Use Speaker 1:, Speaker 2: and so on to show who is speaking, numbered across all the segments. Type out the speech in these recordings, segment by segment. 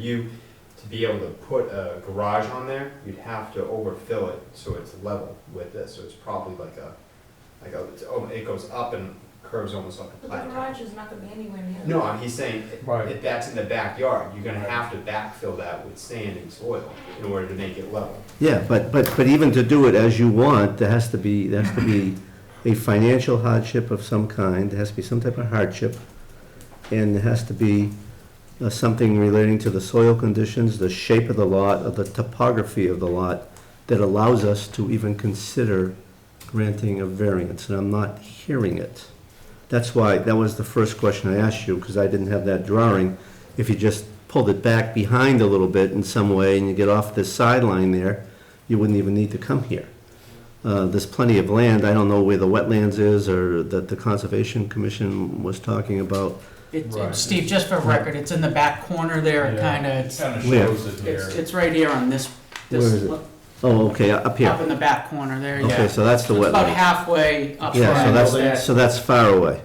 Speaker 1: you to be able to put a garage on there, you'd have to overfill it so it's level with this. So it's probably like a, like a, it's, oh, it goes up and curves almost like a
Speaker 2: But the
Speaker 1: plateau.
Speaker 2: garage is not gonna be anywhere near.
Speaker 1: No, I'm- he's saying
Speaker 3: Right.
Speaker 1: if that's in the backyard, you're gonna
Speaker 3: Right.
Speaker 1: have to backfill that with sand and soil in order to make it level.
Speaker 4: Yeah, but, but, but even to do it as you want, there has to be, there has to be a financial hardship of some kind, there has to be some type of hardship, and there has to be uh, something relating to the soil conditions, the shape of the lot, or the topography of the lot, that allows us to even consider granting a variance, and I'm not hearing it. That's why, that was the first question I asked you, because I didn't have that drawing. If you just pulled it back behind a little bit in some way, and you get off this sideline there, you wouldn't even need to come here. Uh, There's plenty of land, I don't know where the wetlands is, or that the Conservation Commission was talking about.
Speaker 5: It's,
Speaker 3: Right.
Speaker 5: it's, Steve, just for record, it's in the back corner there, it
Speaker 3: Yeah.
Speaker 5: kinda, it's,
Speaker 3: Kind of
Speaker 4: Where?
Speaker 3: shows it here.
Speaker 5: it's, it's right here on this, this,
Speaker 4: Where is it?
Speaker 5: up
Speaker 4: Oh, okay, up here.
Speaker 5: in the back corner there,
Speaker 4: Okay,
Speaker 5: yeah.
Speaker 4: so that's the
Speaker 5: So It's about
Speaker 4: wetland.
Speaker 5: halfway up
Speaker 4: Yeah, so
Speaker 5: from
Speaker 4: that's,
Speaker 5: that
Speaker 4: so that's far away.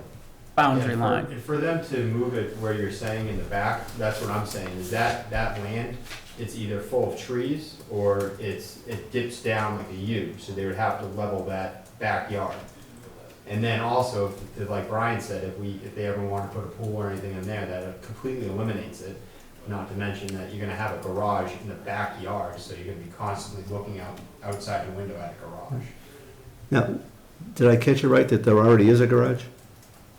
Speaker 1: Yeah,
Speaker 5: boundary
Speaker 1: for-
Speaker 5: line.
Speaker 1: For them to move it where you're saying in the back, that's what I'm saying, is that, that land, it's either full of trees or it's, it dips down like a U, so they would have to level that backyard. And then also, if- like Brian said, if we, if they ever want to put a pool or anything in there, that completely eliminates it. Not to mention that you're gonna have a garage in the backyard, so you're gonna be constantly looking out, outside your window at a garage.
Speaker 4: Now, did I catch it right, that there already is a garage?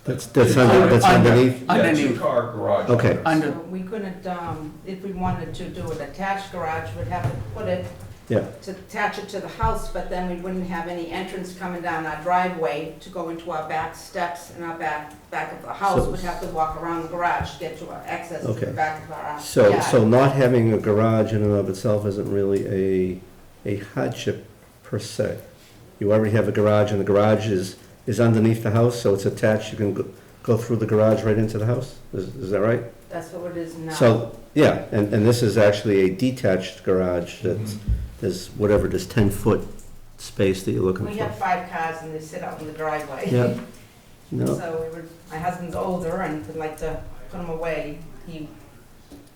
Speaker 4: That's, that's under, that's
Speaker 5: Under-
Speaker 4: underneath?
Speaker 3: Yeah,
Speaker 5: Underneath.
Speaker 3: two-car garage.
Speaker 4: Okay.
Speaker 3: under.
Speaker 5: Under,
Speaker 2: So We couldn't, um, if we wanted to do an attached garage, we'd have to put it,
Speaker 4: Yeah,
Speaker 2: to attach it to the house, but then we wouldn't have any entrance coming down our driveway to go into our back steps and our back, back of the house.
Speaker 4: So-
Speaker 2: We'd have to walk around the garage to get to our access to the
Speaker 4: Okay.
Speaker 2: back of our.
Speaker 4: so,
Speaker 2: yard.
Speaker 4: so not having a garage in and of itself isn't really a, a hardship per se. You already have a garage, and the garage is, is underneath the house, so it's attached, you can go, go through the garage right into the house? Is, is that right?
Speaker 2: That's what it is now.
Speaker 4: So, yeah, and, and this is actually a detached garage
Speaker 1: Mm-hmm.
Speaker 4: that's, there's whatever, this ten-foot space that you're looking
Speaker 2: We have
Speaker 4: for.
Speaker 2: five cars and they sit out in the driveway.
Speaker 4: Yeah. No,
Speaker 2: So we were, my husband's older and would like to put them away. He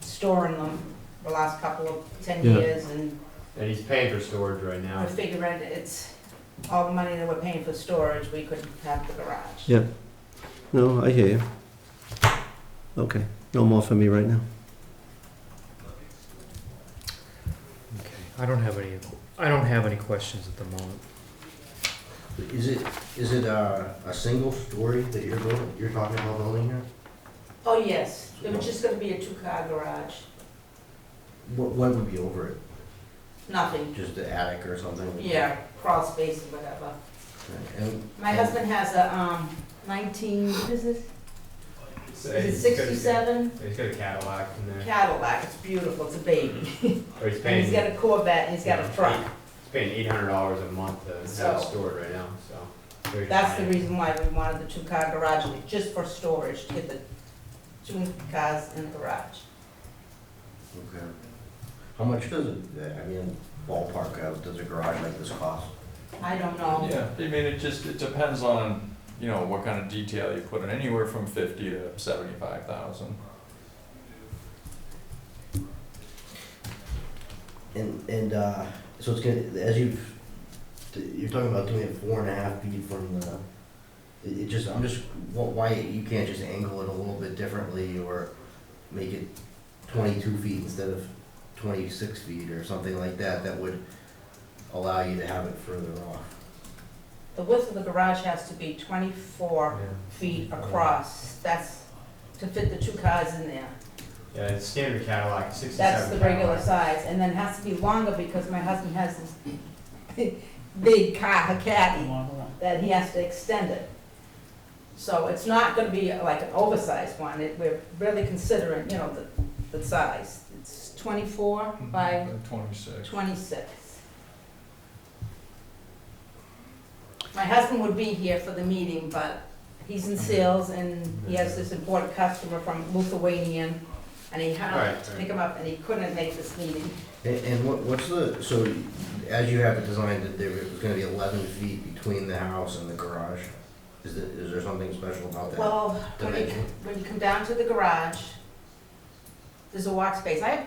Speaker 2: storing them the last couple of, ten
Speaker 4: Yeah.
Speaker 2: years and
Speaker 1: And he's paying for storage right now.
Speaker 2: we're figuring it's all the money that we're paying for storage, we could have the garage.
Speaker 4: Yeah, no, I hear you. Okay, no more for me right now.
Speaker 6: Okay, I don't have any, I don't have any questions at the moment.
Speaker 7: Is it, is it a, a single story that you're building, you're talking about building here?
Speaker 2: Oh, yes. It was just gonna be a two-car garage,
Speaker 7: What, what would be over it?
Speaker 2: nothing.
Speaker 7: Just the attic or something?
Speaker 2: Yeah, crawl space or whatever.
Speaker 7: And,
Speaker 2: My husband has a, um, nineteen, what is it? Is it
Speaker 1: He's got a-
Speaker 2: sixty-seven
Speaker 1: He's got a Cadillac in there.
Speaker 2: Cadillac. It's beautiful. It's a baby.
Speaker 1: Or he's
Speaker 2: And
Speaker 1: paying,
Speaker 2: he's got
Speaker 1: he's
Speaker 2: a Corvette and he's got a
Speaker 1: Mm-hmm.
Speaker 2: truck.
Speaker 1: paying eight hundred dollars a month to have it
Speaker 2: So-
Speaker 1: stored right now, so. very
Speaker 2: That's the
Speaker 1: fine.
Speaker 2: reason why we wanted the two-car garage, like, just for storage, to get the two cars in the garage.
Speaker 7: okay. How much does it, I mean, ballpark, uh, does a garage like this cost?
Speaker 2: I don't know.
Speaker 3: Yeah, I mean, it just, it depends on, you know, what kind of detail you put in, anywhere from fifty to seventy-five thousand.
Speaker 7: And, and, uh, so it's gonna, as you've, you're talking about doing it four and a half feet from the, it, it just, I'm just, wh- why you can't just angle it a little bit differently or make it twenty-two feet instead of twenty-six feet or something like that, that would allow you to have it further off.
Speaker 2: The width of the garage has to be twenty-four
Speaker 1: Yeah.
Speaker 2: feet across, that's to fit the two cars in there.
Speaker 1: Yeah, it's standard Cadillac, sixty-seven.
Speaker 2: That's the regular
Speaker 1: Cadillac.
Speaker 2: size, and then it has to be longer because my husband has this big- big car, a caddy. that he has to extend it. So it's not gonna be like an oversized one, it, we're really considering, you know, the, the size. It's twenty-four
Speaker 1: Mm-hmm.
Speaker 2: by
Speaker 3: Twenty-six.
Speaker 2: twenty-six. My husband would be here for the meeting, but he's
Speaker 1: Mm-hmm.
Speaker 2: in sales and he has this important customer from Lithuanian, and he had
Speaker 1: Right,
Speaker 2: to
Speaker 1: right.
Speaker 2: pick him up, and he couldn't make this meeting.
Speaker 7: And, and what, what's the, so as you have it designed, that there was gonna be eleven feet between the house and the garage? Is there, is there something special about that?
Speaker 2: Well, when you,
Speaker 7: dimension?
Speaker 2: when you come down to the garage, there's a walk space, I have